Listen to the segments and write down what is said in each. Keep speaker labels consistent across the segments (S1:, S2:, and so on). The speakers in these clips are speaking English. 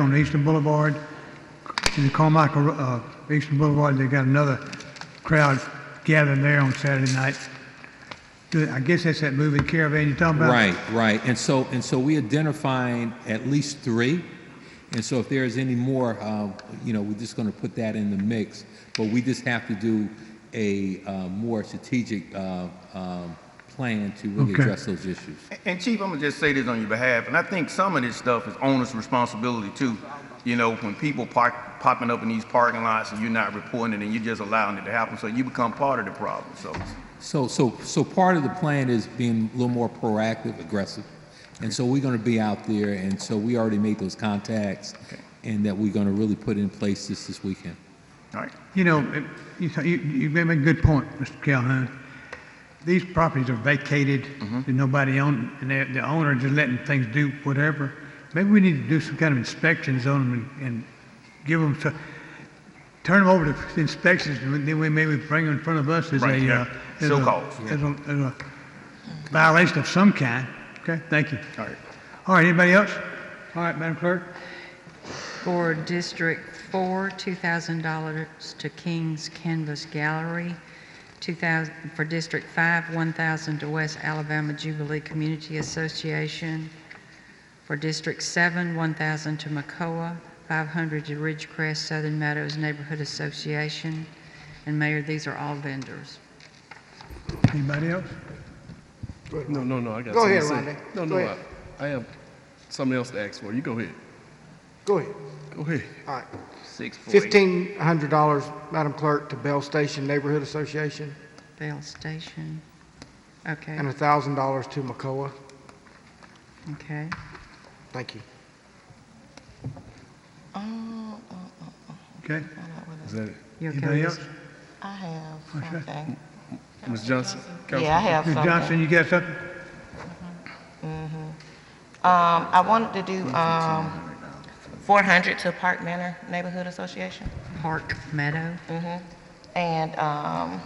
S1: on Eastern Boulevard, in the Carmichael, uh, Eastern Boulevard, they got another crowd gathering there on Saturday night. I guess that's that moving caravan you're talking about?
S2: Right, right. And so, and so we identifying at least three. And so if there is any more, um, you know, we're just going to put that in the mix. But we just have to do a uh, more strategic uh, um, plan to really
S1: Okay.
S2: address those issues.
S3: And Chief, I'm gonna just say this on your behalf, and I think some of this stuff is owner's responsibility too. You know, when people park, popping up in these parking lots and you're not reporting it and you're just allowing it to happen, so you become part of the problem, so.
S2: So, so, so part of the plan is being a little more proactive, aggressive. And so we're going to be out there, and so we already made those contacts, and that we're going to really put in place this this weekend.
S3: All right,
S1: You know, it- you, th- you, you made a good point, Mr. Calhoun. These properties are vacated,
S3: Mm-hmm.
S1: and nobody own, and the, the owner just letting things do whatever. Maybe we need to do some kind of inspections on them and, and give them, to, turn them over to inspections, and then we maybe bring them in front of us as
S3: Right,
S1: a,
S3: yeah.
S1: uh, as a-
S3: So-called, yeah.
S1: As a, as a violation of some kind. Okay, thank you.
S3: all right.
S1: All right, anybody else? All right, Madam Clerk?
S4: For District 4, $2,000 to King's Canvas Gallery. 2000 For District 5, 1,000 to West Alabama Jubilee Community Association. For District 7, 1,000 to Macoa, 500 to Ridgecrest Southern Meadows Neighborhood Association. And Mayor, these are all vendors.
S1: Anybody else?
S5: No, no, no, I got
S6: Go
S5: something
S6: ahead,
S5: to say.
S6: Rodney.
S5: No,
S6: Go
S5: no,
S6: ahead.
S5: I, I have something else to ask for. You go ahead.
S6: Go ahead.
S5: Go ahead.
S6: All right.
S3: Six, four, eight.
S6: Fifteen hundred dollars, Madam Clerk, to Bell Station Neighborhood Association,
S4: Bell Station. Okay,
S6: and thousand dollars to Macoa.
S4: okay.
S6: Thank you.
S7: Um,
S1: Okay,
S5: Is that it?
S4: You
S1: anybody
S4: okay?
S1: else?
S7: I have something.
S5: Ms. Johnson?
S7: Yeah, I have
S1: Ms.
S7: something.
S1: Johnson, you got something?
S7: Um, I wanted to do, um, four hundred to Park Manor Neighborhood Association.
S4: Park Meadow.
S7: Mm-hmm. And, um,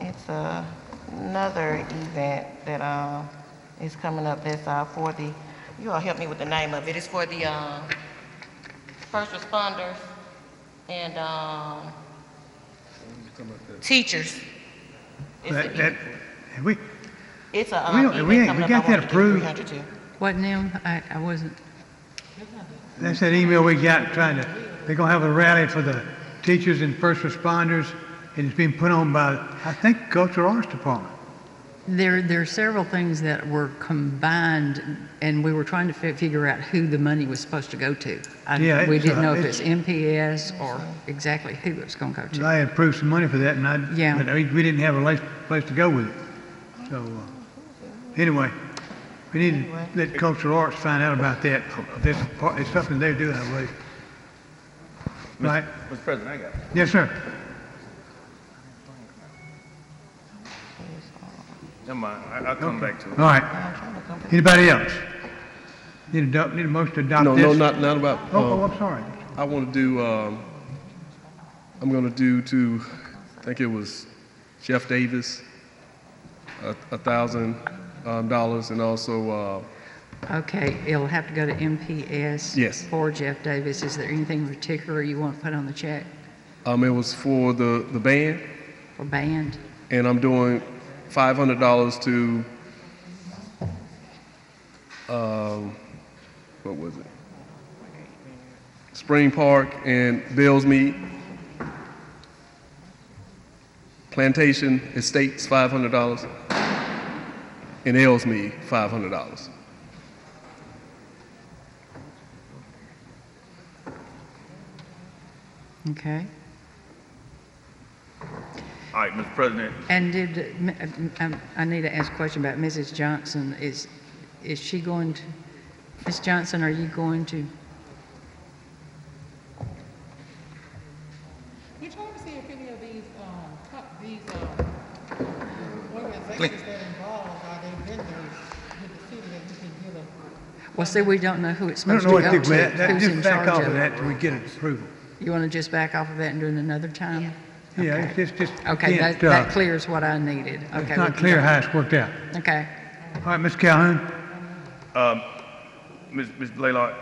S7: it's uh, another event that, um, is coming up that's, uh, for the, you all help me with the name of it. It's for the, um, first responders and, um, teachers. It's
S1: That,
S7: a,
S1: that, have we,
S7: it's a, um,
S1: we don't- we ain't-
S7: event
S1: we
S7: coming
S1: got
S7: up.
S1: that
S7: I wanted to do
S1: approved.
S7: 300 too.
S4: Wasn't him? I, I wasn't.
S1: that's that email we got trying to, they're gonna have a rally for the teachers and first responders, and it's being put on by, I think, Cultural Arts Department.
S4: There, there are several things that were combined, and we were trying to fi- figure out who the money was supposed to go to. I-
S1: Yeah,
S4: We
S1: it's, uh,
S4: didn't know if
S1: it's-
S4: it's MPS or exactly who it was going to go to.
S1: I had approved some money for that, and I,
S4: Yeah.
S1: but we we didn't have a place, place to go with it. So, uh, anyway, we need to let Cultural Arts find out about that. This, part- it's something they're doing, I believe. Right?
S3: Mr. President, I got it.
S1: Yes, sir.
S3: Never mind, I, I'll come back to it.
S1: All right.
S7: I'm trying to come back.
S1: Anybody else? Need a, do- need a motion to adopt
S5: No,
S1: this?
S5: no, not, not about,
S1: Oh, oh,
S5: um,
S1: I'm sorry.
S5: I want to do, um, I'm going to do to, I think it was Jeff Davis, a, a thousand, um, dollars and also, uh,
S4: Okay, it'll have to go to MPS.
S5: Yes.
S4: For Jeff Davis. Is there anything in particular you want put on the check
S5: um, it was for the, the band
S4: for band?
S5: and I'm doing five hundred dollars to, um, um, what was it? Spring Park and Bill's Mead. Plantation Estates, five hundred dollars. And Ellsmead, five hundred dollars.
S4: Okay.
S3: All right, Mr. President,
S4: And did, m- m- um, I need to ask a question about Mrs. Johnson. Is, is she going to, Ms. Johnson, are you going to?
S8: You're trying to see if any of these, um, co- these, um, organizations that involved, are they vendors with the city that you can get a
S4: Well, see, we don't know who it's
S1: I don't
S4: supposed
S1: know
S4: to go
S1: what to do
S4: to.
S1: with that. That-
S4: who's in
S1: Just back
S4: charge
S1: off of
S4: it.
S1: that till we get approval.
S4: You want to just back off of that and do it another time?
S1: Yeah,
S4: Okay.
S1: it's just, just.
S4: Okay,
S1: again,
S4: that, that
S1: uh,
S4: clears what I needed. Okay.
S1: It's
S4: we
S1: not
S4: can
S1: clear
S4: go-
S1: how it's worked out.
S4: Okay.
S1: All right, Ms. Calhoun?
S3: Ms. Blaylock,